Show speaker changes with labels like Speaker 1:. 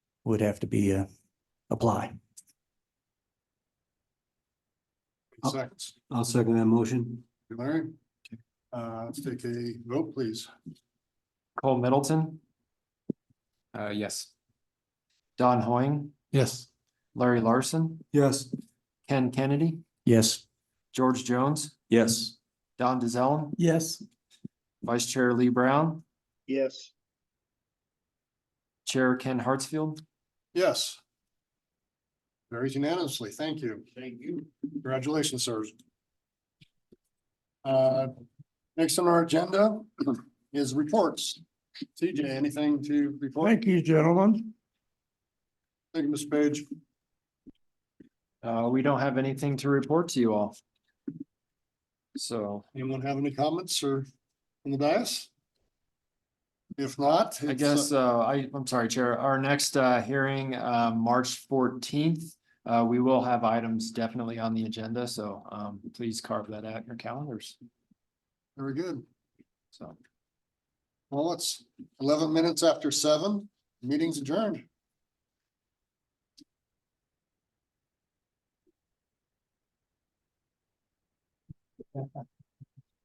Speaker 1: would have to be, uh, apply. Oh.
Speaker 2: Any Seconds,
Speaker 3: I'll second that motion.
Speaker 2: Larry. Uh, let's take a vote, please.
Speaker 4: Cole Middleton. Uh, yes. Don Hoying,
Speaker 2: Yes.
Speaker 4: Larry Larson,
Speaker 3: Yes.
Speaker 4: Ken Kennedy,
Speaker 1: Yes.
Speaker 4: George Jones,
Speaker 3: Yes.
Speaker 4: Don DeZellem,
Speaker 1: Yes.
Speaker 4: Vice Chair Lee Brown,
Speaker 5: yes.
Speaker 4: Chair Ken Hartsfield.
Speaker 2: Yes. Very unanimously, thank you. Thank you. Congratulations, sir. Uh, next on our agenda is reports. TJ, anything to report?
Speaker 1: Thank you, gentlemen.
Speaker 2: Thank you, Mr. Page.
Speaker 4: Uh, we don't have anything to report to you all. So
Speaker 2: Anyone have any comments or in the dais? If not. it's,
Speaker 4: I
Speaker 2: uh,
Speaker 4: guess, uh, I, I'm sorry, Chair, our next, uh, hearing, uh, March fourteenth. Uh, we will have items definitely on the agenda, so, um, please carve that out in your calendars,
Speaker 2: Very good.
Speaker 4: so.
Speaker 2: Well, it's eleven minutes after seven, meeting's adjourned.